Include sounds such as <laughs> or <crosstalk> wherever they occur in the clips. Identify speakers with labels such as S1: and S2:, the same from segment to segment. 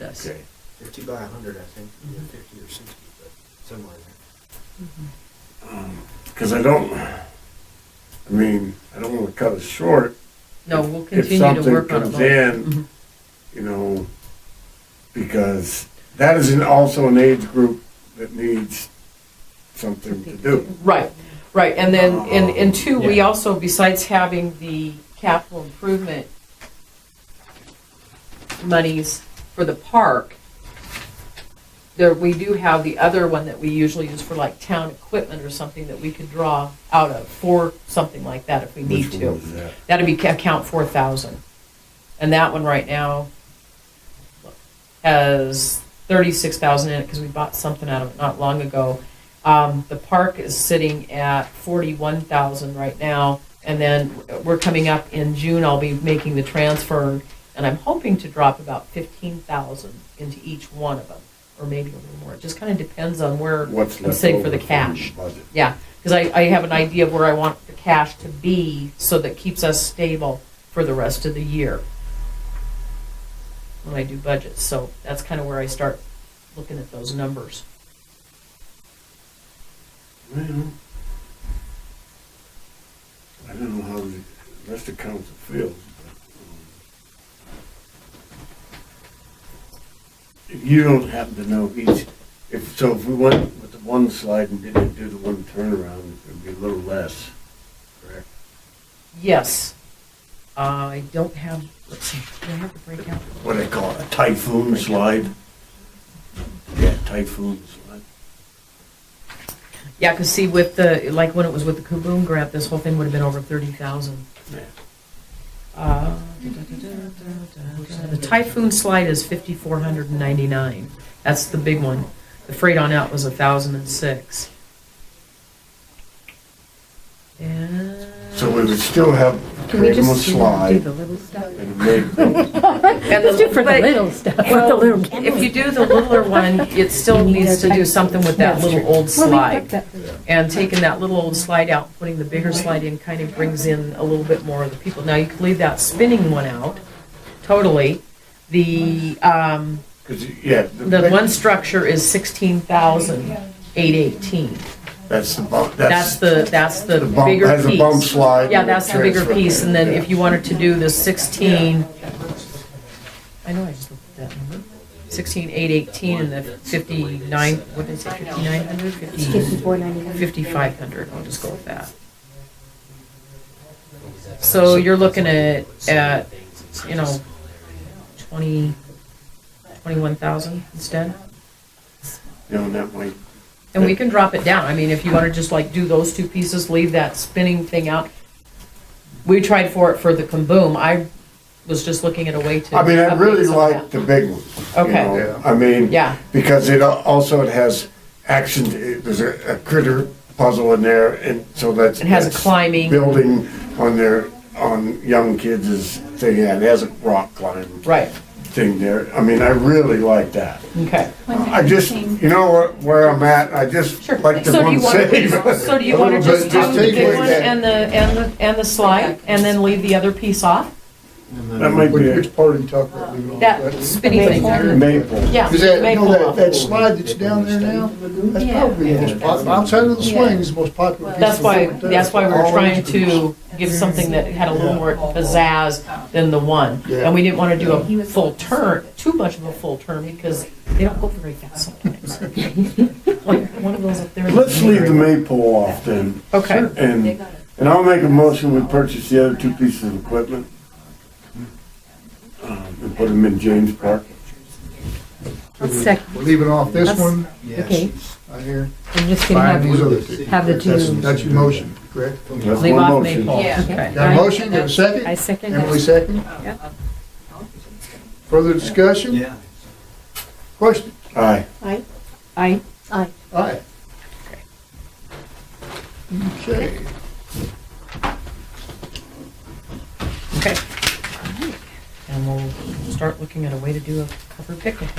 S1: yes.
S2: Okay.
S3: Fifty by a hundred, I think, yeah, fifty or sixty, but somewhere in there.
S2: Because I don't, I mean, I don't want to cut it short.
S4: No, we'll
S2: If
S4: continue to
S2: something
S4: work on Mm-hmm. it.
S2: comes
S4: Lloyd.
S2: in, you know, because that is an- also an age group that needs something to do. Oh.
S4: Right, right, and then, and, and two, we
S1: Yeah.
S4: also, besides having the capital improvement monies for the park, there, we do have the other one that we usually use for like town equipment or something that we could draw out of for something like that if we need
S2: Which one
S4: to.
S2: is that?
S4: That'd be ca- account four thousand. And that one right now has thirty-six thousand in it because we bought something out of it not long ago. Um, the park is sitting at forty-one thousand right now. And then we're coming up in June, I'll be making the transfer and I'm hoping to drop about fifteen thousand into each one of them. Or maybe a little more. It just kind of depends on where
S2: What's
S4: I'm
S2: left
S4: sitting for
S2: over
S4: the
S2: from
S4: cash.
S2: budget.
S4: Yeah, because I, I have an idea of where I want the cash to be, so that keeps us stable for the rest of the year when I do budgets, so that's kind of where I start looking at those numbers.
S2: Well, I don't know how the rest of council feels, but. um, If you don't happen to know each, if, so if we went with the one slide and didn't do the one turnaround, it'd be a little less, correct?
S4: Yes, I don't have, let's see, do I have to break out?
S2: What do they call it, a typhoon slide? Yeah, typhoon slide.
S4: Yeah, because see, with the, like, when it was with the Kaboom grant, this whole thing would have been over thirty thousand.
S2: Yeah.
S4: Uh, The Typhoon slide is fifty-four hundred and ninety-nine. That's the big one. The freight on out was a thousand and six. And.
S2: So we would still have the
S5: Can we
S2: original
S5: just do do <laughs>
S2: slide
S5: the little stuff?
S2: and make the
S4: And
S5: Let's do it for the
S4: but-
S5: little stuff, with
S4: <laughs>
S5: the
S4: Well,
S5: little.
S4: if you do the littler one, it still needs to do something with that little old slide. And taking that little old slide out, putting the bigger slide in, kind of brings in a little bit more of the people. Now, you could leave that spinning one out, totally. The, um,
S2: Because, yeah.
S4: the one structure is sixteen thousand eight eighteen.
S2: That's the bump,
S4: That's
S2: that's,
S4: the, that's the
S2: the bump,
S4: bigger
S2: has a bump
S4: piece.
S2: slide.
S4: Yeah,
S2: and a
S4: that's the bigger
S2: transfer.
S4: piece, and then if
S2: Yeah.
S4: you wanted to do the sixteen, I know I just looked at that number, sixteen eight eighteen and the fifty-nine, what did I say, fifty-nine hundred, fifty,
S5: Fifty-four ninety-nine.
S4: fifty-five hundred, I'll just go with that. So you're looking at, at, you know, twenty, twenty-one thousand instead?
S2: You know, and that might,
S4: And we can drop it down. I mean, if you want to just like do those two pieces, leave that spinning thing out. We tried for it for the kaboom. I was just looking at a way to.
S2: I mean, I really
S4: update some of
S2: like the big one. you
S4: Okay.
S2: know. I mean.
S4: Yeah.
S2: Because it al- also, it has action, it- there's a a critter puzzle in there, and so that's.
S4: It has a
S2: that's
S4: climbing.
S2: Building on their, on young kids is, thing, yeah, it has a rock climb.
S4: that. Right,
S2: Thing there, I mean, I really like that.
S4: okay.
S2: I just, you know where, where I'm at, I just
S4: Sure.
S2: like
S4: So
S2: the
S4: do
S2: one
S4: you wanna-
S2: save.
S4: So do you
S2: <laughs> A
S4: want to
S2: little
S4: just
S2: bit,
S4: do the
S2: take away
S4: big one
S2: that.
S4: and the, and the, and the slide and then leave the other piece off?
S2: That might be a-
S6: Which part are you talking about? leaving off
S4: That spinny thing there?
S2: Maple.
S4: Yeah.
S6: Is that, you
S4: maple
S6: know, that,
S4: off.
S6: that slide that's down there now, that's
S5: Yeah.
S6: probably the most popular, outside of the swing, is the most popular. piece
S4: That's
S6: of
S4: why,
S6: wood there.
S4: that's why we we're
S6: All
S4: trying
S6: instruments.
S4: to give something that had a little more pizzazz than the one.
S6: Yeah.
S4: And we didn't want to do a full turn, too much of a full turn, because they don't go very fast sometimes. Like, one of those up there.
S2: Let's leave the maypole off then.
S4: Okay.
S2: And, and I'll make a motion, we purchase the other two pieces of equipment. um, And put them in James Park.
S5: Second,
S6: We're leaving off this
S5: That's-
S6: one,
S3: Yeah,
S5: Okay.
S3: she's-
S6: I hear,
S5: I'm just gonna
S6: buying these
S5: have,
S6: other two.
S5: have the
S6: That's,
S5: two.
S6: that's your motion, correct?
S2: That's
S4: Leave
S2: one
S4: off
S2: motion.
S4: maybe.
S5: Okay.
S6: Got a motion, got a
S5: I
S6: second?
S5: second
S6: Emily
S5: that.
S6: second? Further discussion?
S3: Yeah.
S6: Question?
S2: Aye.
S5: I, I,
S6: Aye. Okay.
S4: Okay. And we'll start looking at a way to do a cover picnic.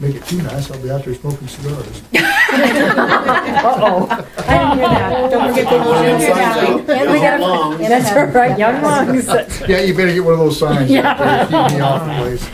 S6: Make it too nice, I'll be out there smoking cigars.
S5: uh-oh. I didn't hear that. Don't forget
S3: Signs
S5: the
S3: out,
S5: little. And
S3: yellow
S5: we gotta,
S3: lungs.
S5: that's right, young lungs.
S6: Yeah, you better get one of those signs. uh,
S5: Yeah.
S6: Keep me off the place.